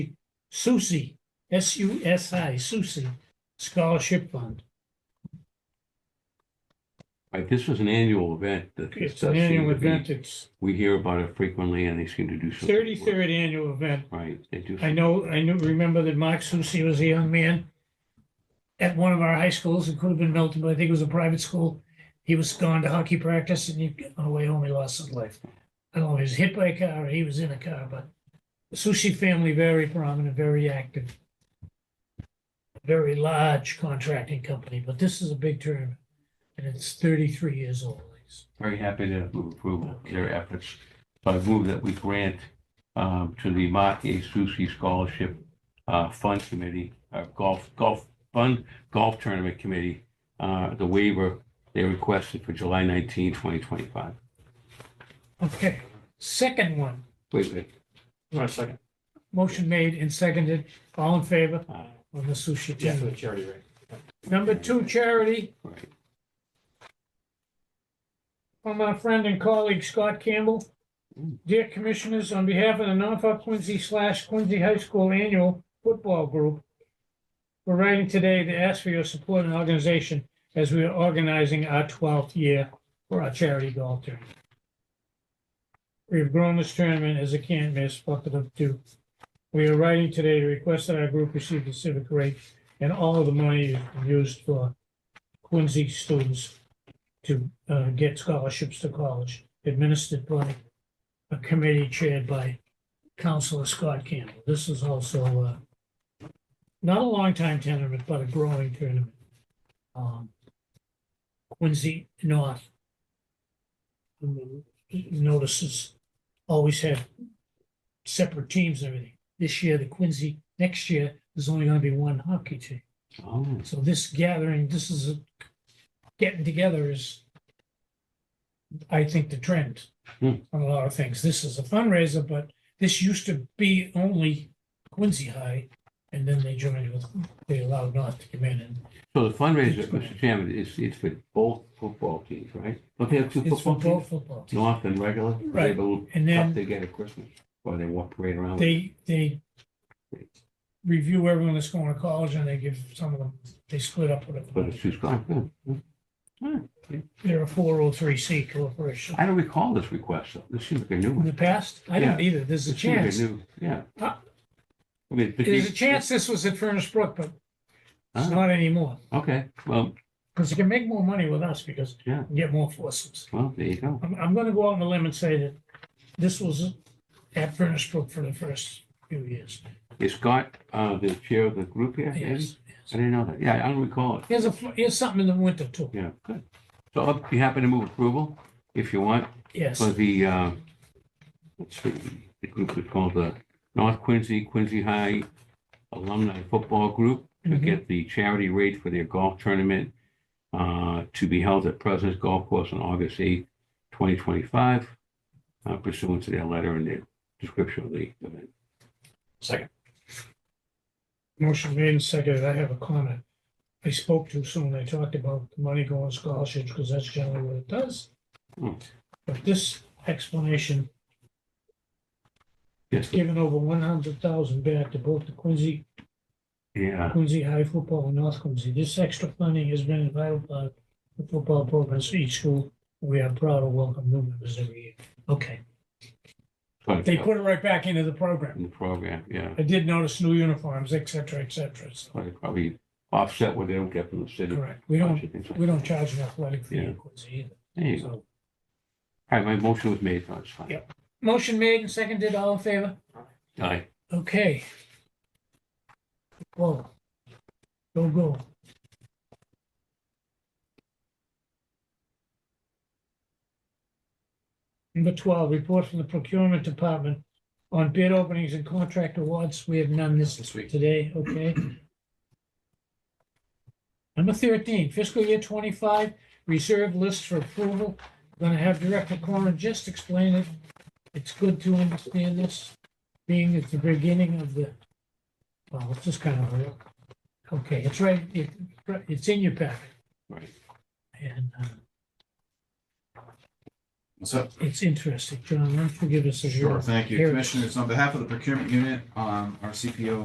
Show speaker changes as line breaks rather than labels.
Susi, S-U-S-I, Susi Scholarship Fund.
Right, this was an annual event that. this
It's an
does seem
annual
to be-
event, it's
We hear about it frequently and they seem to do some. good work.
thirty-third annual event.
Right, they do.
I
some-
know, I knew, remember that Mark Susi was a young man at one of our high schools, it could have been Milton, but I think it was a private school. He was gone to hockey practice and he, on the way home, he lost his life. I don't know if he was hit by a car or he was in a car, but the Susi family, very prominent, very active. Very large contracting company, but this is a big tournament and it's thirty-three years old.
Very happy to move approval of their efforts. So I move that we grant um, to the Mark A. Susi Scholarship uh, Fund Committee, uh, Golf, Golf Fund Golf Tournament Committee, uh, the waiver they requested for July 19, 2025.
Okay, second one,
Wait, wait.
One second,
motion made and seconded, all in favor
uh,
on the Sushi
yeah, for the
tournament.
charity rate.
Number two, charity
Right.
from our friend and colleague Scott Campbell. Dear Commissioners, on behalf of the Norfolk Quincy slash Quincy High School Annual Football Group, we're writing today to ask for your support and organization as we are organizing our twelfth year for our charity golf tournament. We've grown this tournament as a can't miss bucket of two. We are writing today to request that our group receive the civic rate and all of the money is used for Quincy students to uh, get scholarships to college, administered by a committee chaired by Counselor Scott Campbell. This is also uh, not a long-time tournament, but a growing tournament. Um, Quincy North um, notices always have separate teams and everything. This year, the Quincy, next year, there's only going to be one hockey team.
Oh,
So this gathering, this is a- getting together is, I think, the trend
Hmm.
on a lot of things. This is a fundraiser, but this used to be only Quincy High. And then they joined with, they allowed North to come in and
so the fundraiser, Mr. Chairman, is, it's for both football teams, right? Don't they have two
it's for
football
both
teams?
football. teams.
North and regular? Are they
Right.
little
And
Cup
then
they get at Christmas, or they walk right around? with it?
they, they review everyone that's going to college and they give some of them, they split up with
But it's
it.
just gone.
They're a four oh three C corporation.
I don't recall this request, though. This seems like a new
In the
one.
past, I didn't either. There's a
This seems like
chance.
new- Yeah.
Uh,
I mean, but
There's
they-
a chance this was at Furnace Brook, but it's
Ah.
not anymore,
Okay, well,
because you can make more money with us because you
Yeah.
can get more forces.
well, there you go.
I'm, I'm gonna go out on a limb and say that this was at Furnace Brook for the first few years.
Is Scott, uh, the chair of the group here? maybe?
Yes.
I didn't know that. Yeah, I don't recall it.
Here's a, fl- here's something in the winter too,
Yeah, good. So I'll be happy to move approval if you want
yes.
for the, uh, let's see, the group is called the North Quincy, Quincy High Alumni Football Group. to
Mhm.
get the charity rate for their golf tournament uh, to be held at President's Golf Course on August 8, 2025, uh, pursuant to their letter and their description of the event.
Second,
Motion made and seconded. I have a comment. I spoke too soon. I talked about the money going to scholarships because that's generally what it does.
Hmm.
But this explanation
Yes,
given over one hundred thousand back to both the Quincy
yeah,
Quincy High Football in North Quincy. This extra funding has been available by the football programs for each school. We are proud to welcome new members every year. Okay,
but
they put it right back into the program.
in the program, yeah.
I did notice new uniforms, et cetera, et cetera. So,
But it Probably offset what they don't get from the city.
correct. We don't,
Things like-
we don't charge an athletic fee
Yeah.
in Quincy
There you
either.
go.
So,
All right, my motion was made, so it's fine.
Yep. motion made and seconded. All in favor?
All right,
Okay. Whoa. Go, go. Number twelve, report from the procurement department on bid openings and contract awards. We have none this
this week,
today, okay? Number thirteen, fiscal year twenty-five, reserve list for approval. Gonna have Director Cronin just explain it. It's good to understand this, being at the beginning of the, well, it's just kind of, a- okay, it's right, it, it's in your packet.
Right.
And, uh,
What's up?
it's interesting. John, why don't you give us a.
Sure, thank you.
Here it is.
Commissioners, on behalf of the procurement unit, um, our CPO